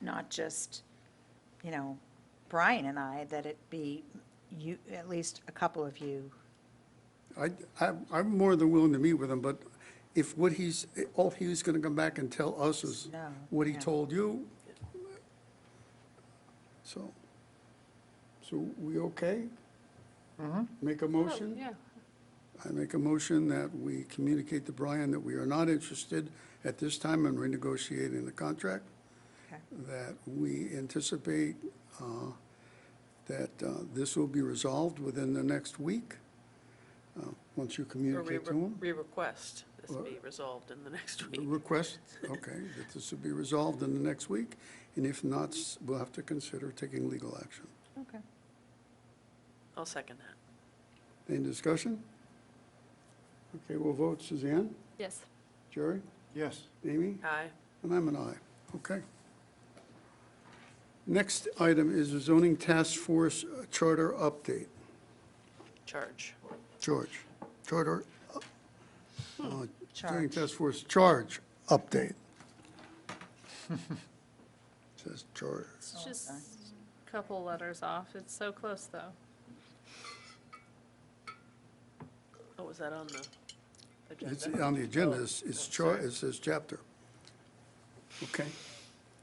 not just, you know, Brian and I, that it be you, at least a couple of you. I, I, I'm more than willing to meet with him, but if what he's, all he's gonna come back and tell us is No, what he yeah. told you, so, so we okay? Make Oh, Oh, a motion? Yeah, I make a motion that we communicate to Brian that we are not interested at this time in renegotiating the contract, Okay. that we anticipate uh, that uh, this will be resolved within the next week, uh, once you or we communicate to him. re-request this Or- be resolved in the next The week. Request, okay, that this will be resolved in the next week, and if not, s- we'll have to consider taking legal action. Okay. I'll second that. Any discussion? Okay, we'll vote. Suzanne? Yes. Jerry? Yes. Amy? Aye. And I'm an aye. Okay. Next item is the zoning task force charter update. Charge. George, charter, uh, uh, zoning Charge. task force charge update. Says charter. It's just a couple letters off. It's so close, though. Oh, was that on the It's agenda? on the agenda, it's, it's char, it says chapter. Okay.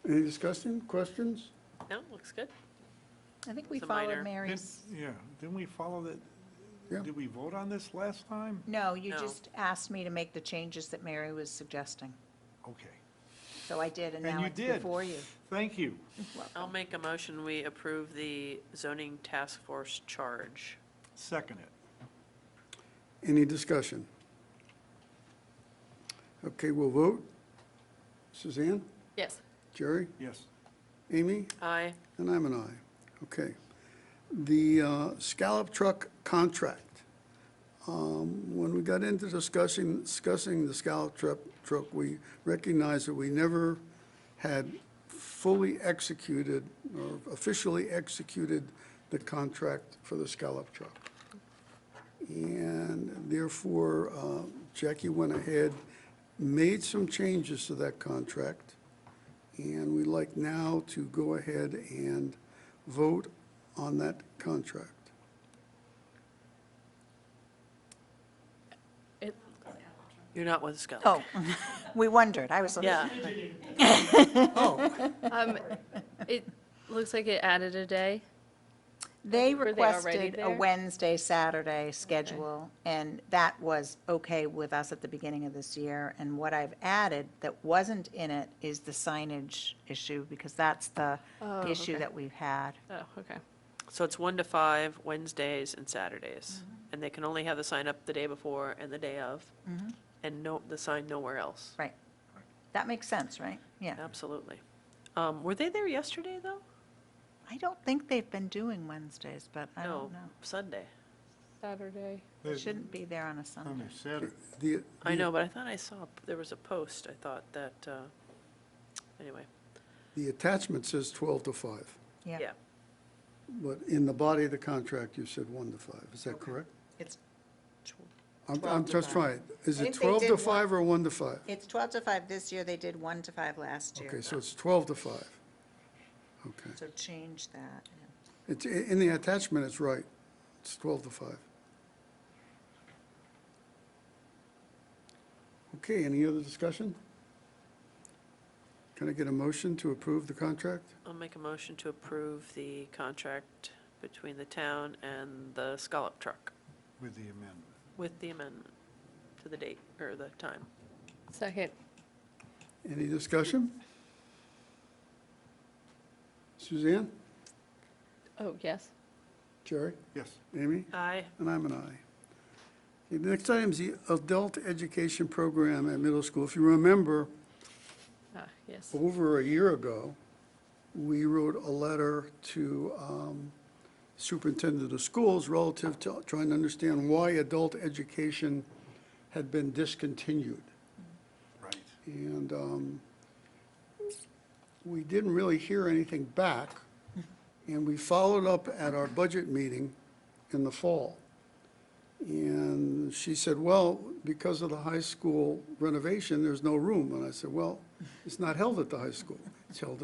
Any discussion, questions? No, looks good. I think we It's a minor. followed Didn't- Mary's. Yeah, didn't we follow that? Yeah. Did we vote on this last time? No, you Hmm. No. just asked me to make the changes that Mary was suggesting. Okay, So I did, and And now you it's did. before you. thank you. I'll make a motion, we approve the zoning task force charge. Second it. Any discussion? Okay, we'll vote. Suzanne? Yes. Jerry? Yes. Amy? Aye. And I'm an aye. Okay. The uh, scallop truck contract. Um, When we got into discussing, discussing the scallop truck, truck, we recognized that we never had fully executed or officially executed the contract for the scallop truck. And therefore, uh, Jackie went ahead, made some changes to that contract. And we'd like now to go ahead and vote on that contract. It, You're not with Scott. Oh, we wondered. I was. Yeah, um, it looks like it added a day. They Were they already requested a there? Wednesday, Saturday schedule, and that was okay with us at the beginning of this year. And what I've added that wasn't in it is the signage issue, because that's the Oh, issue okay. that we've had. Oh, okay. so it's one to five, Wednesdays and Saturdays. Mm-hmm. And they can only have the sign up the day before and the day of, Mm-hmm. and no, the sign nowhere else. Right. That makes sense, right? Yeah. Absolutely. Um, Were they there yesterday, though? I don't think they've been doing Wednesdays, but I No, don't know. Sunday. Saturday. They shouldn't be there on a On Sunday. the Saturday. The- I know, but I thought I saw, there was a post, I thought that, uh, anyway, The attachment says 12 to 5, yeah. but in the body of the contract, you said 1 to 5. Is that correct? It's, I'm, 12 I'm to just five. trying. Is I it think they 12 did to one- 5 or 1 to 5? it's 12 to 5 this year. They did 1 to 5 last year. Okay, so it's 12 to 5. Okay. So change that. It's, i- in the attachment, it's right. It's 12 to 5. Okay, any other discussion? Can I get a motion to approve the contract? I'll make a motion to approve the contract between the town and the scallop truck With the amendment. with the amendment to the date or the time. Second. Any discussion? Suzanne? Oh, yes. Jerry? Yes. Amy? Aye. And I'm an aye. Okay, The next item is the adult education program at middle school. If you remember, Ah, yes. over a year ago, we wrote a letter to um, superintendent of schools relative to trying to understand why adult education had been discontinued. Right. And um, we didn't really hear anything back. And we followed up at our budget meeting in the fall. And she said, well, because of the high school renovation, there's no room. And I said, well, it's not held at the high school. It's held at